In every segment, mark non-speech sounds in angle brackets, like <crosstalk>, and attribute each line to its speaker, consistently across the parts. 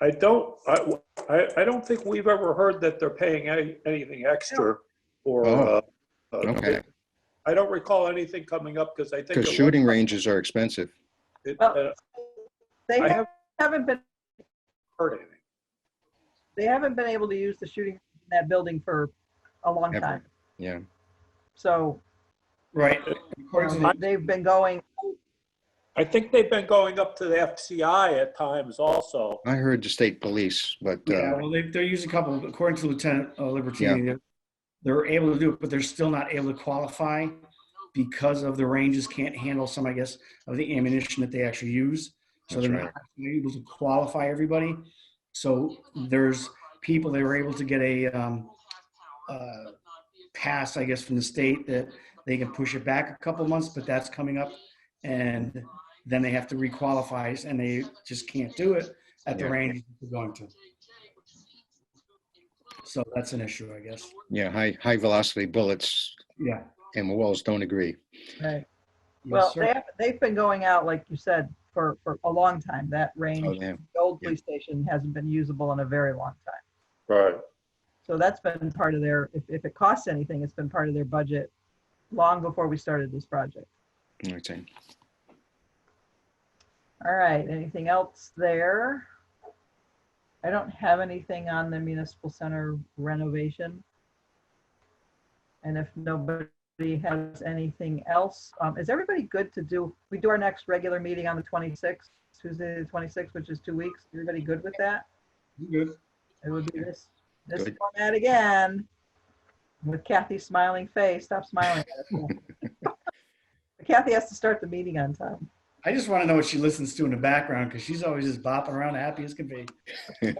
Speaker 1: I don't, I, I, I don't think we've ever heard that they're paying any, anything extra or, uh,
Speaker 2: Oh,
Speaker 1: uh,
Speaker 2: Okay,
Speaker 1: I don't recall anything coming up because I think.
Speaker 2: because
Speaker 1: it was-
Speaker 2: shooting ranges are expensive.
Speaker 1: it-
Speaker 3: Well-
Speaker 1: uh,
Speaker 3: They
Speaker 1: I
Speaker 3: have-
Speaker 1: haven't
Speaker 3: haven't been,
Speaker 1: heard anything.
Speaker 3: they haven't been able to use the shooting, range in that building for a long
Speaker 2: Ever.
Speaker 3: time.
Speaker 2: Yeah.
Speaker 3: So
Speaker 4: Right.
Speaker 3: you
Speaker 4: According to
Speaker 3: know,
Speaker 4: the-
Speaker 3: they've been going,
Speaker 1: I think they've been going up to the FCI at times also.
Speaker 2: I heard the state police, but
Speaker 4: Yeah,
Speaker 2: uh,
Speaker 4: well, they, they're using a couple, according to Lieutenant uh, Libertini, they're- they're able to do it, but they're still not able to qualify because of the ranges can't handle some, I guess, of the ammunition that they actually use. So
Speaker 2: That's
Speaker 4: they're
Speaker 2: right.
Speaker 4: not actually able to qualify everybody. So there's people, they were able to get a um, uh, pass, I guess, from the state that they can push it back a couple months, but that's coming up. And then they have to requalify and they just can't do it at the
Speaker 2: Yeah.
Speaker 4: range they're going to. So that's an issue, I guess.
Speaker 2: yeah, high, high velocity bullets
Speaker 4: Yeah.
Speaker 2: and walls don't agree.
Speaker 3: well,
Speaker 4: Yes,
Speaker 3: they
Speaker 4: sir.
Speaker 3: have, they've been going out, like you said, for, for a long time. That
Speaker 2: Oh,
Speaker 3: range,
Speaker 2: yeah.
Speaker 3: the old
Speaker 2: Yeah.
Speaker 3: police station hasn't been usable in a very long time.
Speaker 1: Right.
Speaker 3: So that's been part of their, if, if it costs anything, it's been part of their budget long before we started this project.
Speaker 2: Okay. <laughs>
Speaker 3: All right, anything else there? I don't have anything on the municipal center renovation. And if nobody has anything else, um, is everybody good to do, we do our next regular meeting on the 26th, Tuesday the 26th, which is two weeks. Everybody good with that?
Speaker 4: Good.
Speaker 3: It would be this, this
Speaker 2: Good.
Speaker 3: format again. With Kathy's smiling face, stop smiling. <laughs> at us. Kathy has to start the meeting on time.
Speaker 4: I just want to know what she listens to in the background because she's always just bopping around, happy as can be.
Speaker 5: I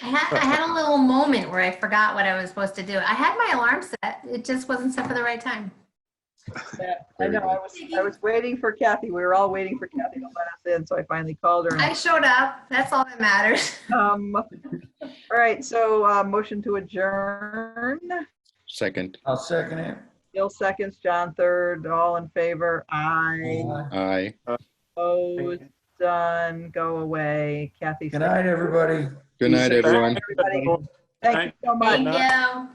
Speaker 5: had, I had a little moment where I forgot what I was supposed to do. I had my alarm set. It just wasn't set for the right time.
Speaker 3: Yeah, I know, I was, I was waiting for Kathy. We were all waiting for Kathy to let us in, so I finally called her.
Speaker 5: I showed up. That's all that matters.
Speaker 3: Um, All right, so uh, motion to adjourn.
Speaker 2: Second,
Speaker 6: I'll second it.
Speaker 3: Bill seconds, John third, all in favor. Aye.
Speaker 2: aye.
Speaker 3: Opposed, done, go away. Kathy.
Speaker 6: Good night, everybody.
Speaker 2: Good night, everyone.
Speaker 3: Everybody, thank you so much.
Speaker 5: Thank you.